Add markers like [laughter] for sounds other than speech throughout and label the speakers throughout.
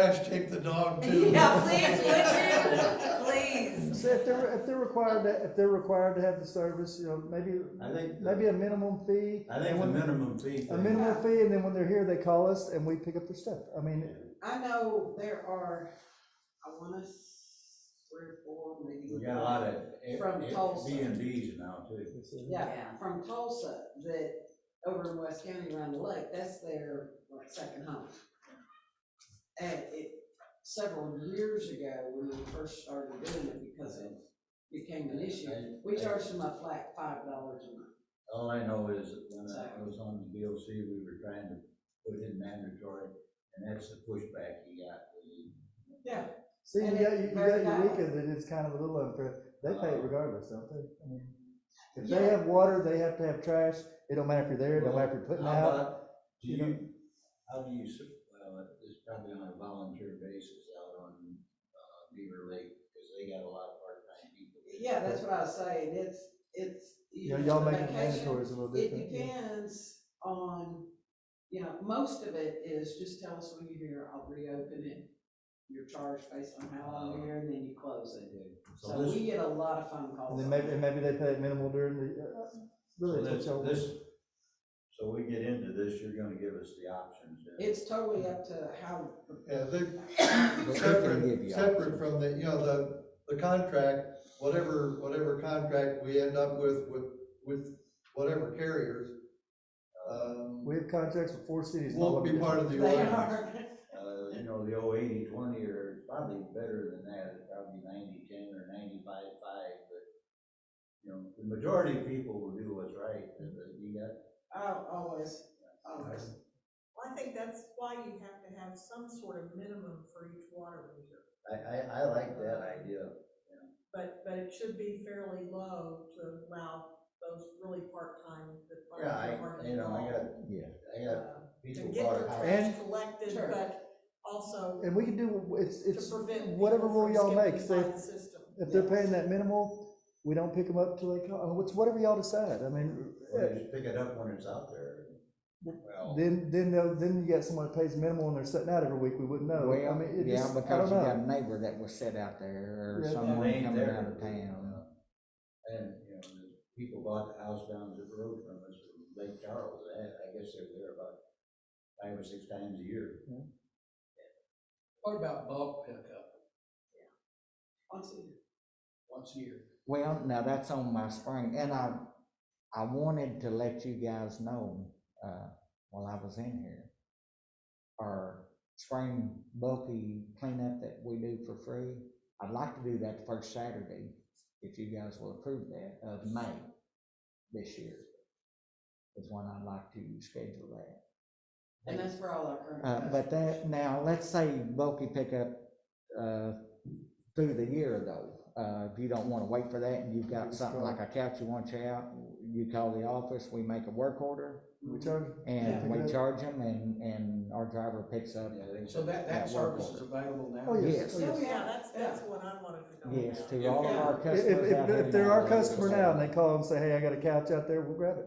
Speaker 1: guys take the
Speaker 2: [laughs]
Speaker 1: dog too?
Speaker 3: [laughs] Yeah, please, would you? Please.
Speaker 4: So if they're, if they're required to, if they're required to have the service, you know, maybe,
Speaker 5: I think, the-
Speaker 4: maybe a minimum fee.
Speaker 5: I think the minimum fee
Speaker 4: A
Speaker 5: thing,
Speaker 4: minimum fee, and then when they're here, they call us and we pick up their stuff. I mean,
Speaker 2: I know there are, I wanna, s- three or four, maybe.
Speaker 5: we got a lot of
Speaker 2: From Tulsa.
Speaker 5: B and Bs now too.
Speaker 2: Yeah, from Tulsa, that over in West County around the lake, that's their, like, second home. And it, several years ago, when we first started doing it, because it became an issue, we charged them a flat five dollars a month.
Speaker 5: All I know is that when I was on the DOC, we were trying to put in mandatory, and that's the pushback he got.
Speaker 4: see, you
Speaker 2: And
Speaker 4: got, you
Speaker 2: it's
Speaker 4: you got
Speaker 2: very
Speaker 4: Eureka,
Speaker 2: valid.
Speaker 4: then it's kind of a little unfair. They pay it regardless, don't they? I mean, If they
Speaker 2: Yeah.
Speaker 4: have water, they have to have trash. It don't matter if you're there, it don't matter if you're putting
Speaker 5: How
Speaker 4: out.
Speaker 5: about- Do
Speaker 4: you
Speaker 5: you, how do you, s- well, it's probably on a volunteer basis out on, uh, Beaver Lake, because they got a lot of part-time people.
Speaker 2: Yeah, that's what I was saying, it's, it's.
Speaker 4: You know, y'all making
Speaker 2: vacation,
Speaker 4: mandatory is a little
Speaker 2: It
Speaker 4: different. yeah.
Speaker 2: depends on, you know, most of it is just tell us when you're here, I'll reopen it. You're charged based on how long you're here and then you close it. So
Speaker 5: this-
Speaker 2: we get a lot of phone calls.
Speaker 4: And then maybe, and maybe they pay it minimal during the, uh,
Speaker 5: So
Speaker 4: really,
Speaker 5: this-
Speaker 4: that's all.
Speaker 5: this- So we get into this, you're gonna give us the options. then.
Speaker 2: It's totally up to how,
Speaker 1: Yeah, they,
Speaker 5: But they can give
Speaker 1: separate,
Speaker 5: you
Speaker 1: separate from the, you know, the, the contract, whatever, whatever contract we end up with, with, with whatever carriers, um,
Speaker 4: We have contracts with four cities. and all
Speaker 1: won't
Speaker 4: of
Speaker 1: be
Speaker 4: them.
Speaker 1: part of the
Speaker 2: they
Speaker 1: ordinance.
Speaker 2: are, [laughs]
Speaker 5: Uh, you know, the old eighty twenty or probably better than that, it's probably ninety ten or ninety-five five, but, you know, the majority of people will do what's right, and but you got,
Speaker 2: I'll always, always.
Speaker 6: Well, I think that's why you have to have some sort of minimum for each water meter,
Speaker 5: I, I, I like that idea.
Speaker 6: but, but it should be fairly low to allow those really part-time that are.
Speaker 5: Yeah, I,
Speaker 6: are
Speaker 5: you know, I got, I got
Speaker 6: involved, uh, To
Speaker 5: people
Speaker 6: get
Speaker 5: bought
Speaker 6: their
Speaker 5: a house.
Speaker 4: And-
Speaker 6: trash collected,
Speaker 2: Sure.
Speaker 6: but also
Speaker 4: And we can do, it's,
Speaker 6: to
Speaker 4: it's
Speaker 6: prevent. people
Speaker 4: whatever rule
Speaker 6: from
Speaker 4: y'all make.
Speaker 6: skipping
Speaker 4: Say,
Speaker 6: by
Speaker 4: if
Speaker 6: the System.
Speaker 4: If they're paying that minimal, we don't pick them up till they call, it's whatever y'all decide, I mean, eh,
Speaker 5: Well, they just pick it up when it's out there. Well,
Speaker 4: then, then, they'll- then you got someone that pays minimal and they're sitting out every week, we wouldn't know, Oh, I
Speaker 7: Well,
Speaker 4: mean, it
Speaker 7: yeah,
Speaker 4: just, I
Speaker 7: because
Speaker 4: don't
Speaker 7: you got
Speaker 4: know.
Speaker 7: a neighbor that was set out there or
Speaker 4: Yeah.
Speaker 5: they
Speaker 7: someone
Speaker 5: ain't
Speaker 7: coming
Speaker 5: there.
Speaker 7: out of town.
Speaker 5: And, you know, the people bought the house down the road from us, from Lake Charles, I, I guess they're there about five or six times a year.
Speaker 8: What about bulk pickup
Speaker 2: Once a year.
Speaker 8: once a year?
Speaker 7: Well, now that's on my spring, and I, I wanted to let you guys know, uh, while I was in here, our spring bulky cleanup that we do for free, I'd like to do that the first Saturday, if you guys will approve that, of May this year. Is when I'd like to schedule that.
Speaker 2: And that's for all our current.
Speaker 7: Uh, but that, now, let's say bulky pickup, uh, through the year though. Uh, if you don't wanna wait for that and you've got something like a couch you want you out, you call the office, we make a work order
Speaker 4: We charge,
Speaker 7: and
Speaker 4: Yeah.
Speaker 7: we charge them and, and our driver picks up.
Speaker 5: Yeah, they-
Speaker 8: So that, that
Speaker 7: That work
Speaker 8: service is available now?
Speaker 4: oh, yes,
Speaker 7: Yes.
Speaker 4: oh, yes.
Speaker 6: Yeah, that's, that's what I wanted to know.
Speaker 7: Yes,
Speaker 6: about.
Speaker 7: to all of our
Speaker 4: If,
Speaker 7: customers out
Speaker 4: if,
Speaker 7: there
Speaker 4: if they're our
Speaker 7: now.
Speaker 4: customer now and they call and say, hey, I got a couch out there, we'll grab it.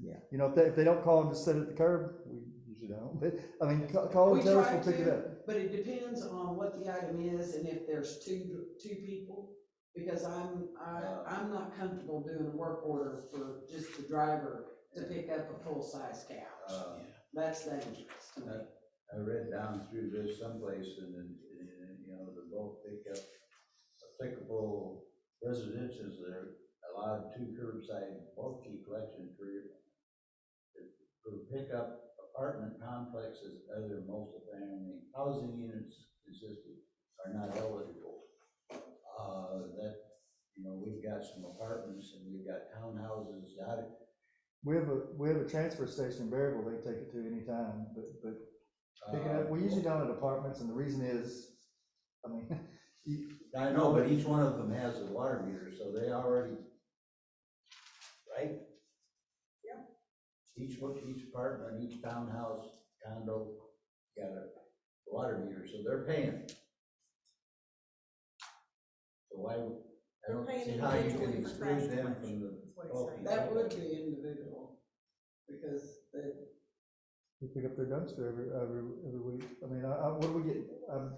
Speaker 7: Yeah.
Speaker 4: You know, if they, if they don't call and just sit at the curb, we usually don't, but, I mean, ca- call
Speaker 2: We
Speaker 4: and Oh, tell us,
Speaker 2: try
Speaker 4: we'll pick it
Speaker 2: to.
Speaker 4: up.
Speaker 2: But it depends on what the item is and if there's two, two people, because I'm, I, I'm not comfortable doing a work order for just the driver to pick up a full-size couch.
Speaker 5: Uh,
Speaker 2: That's dangerous to me.
Speaker 5: I read down through this someplace and, then, and, and, you know, the bulk pickup, applicable residences that are allowed two curbside bulky collection per, per pickup apartment complexes, other multifamily housing units consisting are not eligible. Uh, that, you know, we've got some apartments and we've got townhouses out of
Speaker 4: We have a, we have a transfer station in Berryville they take it to anytime, but, but Pick it
Speaker 5: Uh,
Speaker 4: up, we usually don't at apartments, and the reason is, I mean, [laughs] you-
Speaker 5: I know, but each one of them has a water meter, so they already, right?
Speaker 2: Yeah.
Speaker 5: Each one, each apartment, each townhouse, condo, got a water meter, so they're paying. So why, I
Speaker 6: They're
Speaker 5: don't
Speaker 6: paying
Speaker 5: see how you
Speaker 6: individually
Speaker 5: can
Speaker 6: for trash
Speaker 5: exclude them from
Speaker 6: collection,
Speaker 5: the.
Speaker 6: is what it's
Speaker 5: bulk
Speaker 6: saying.
Speaker 2: That would be individual, because the,
Speaker 4: you pick up their dumpster every, every, every week, I mean, I, I, what do we get, I'm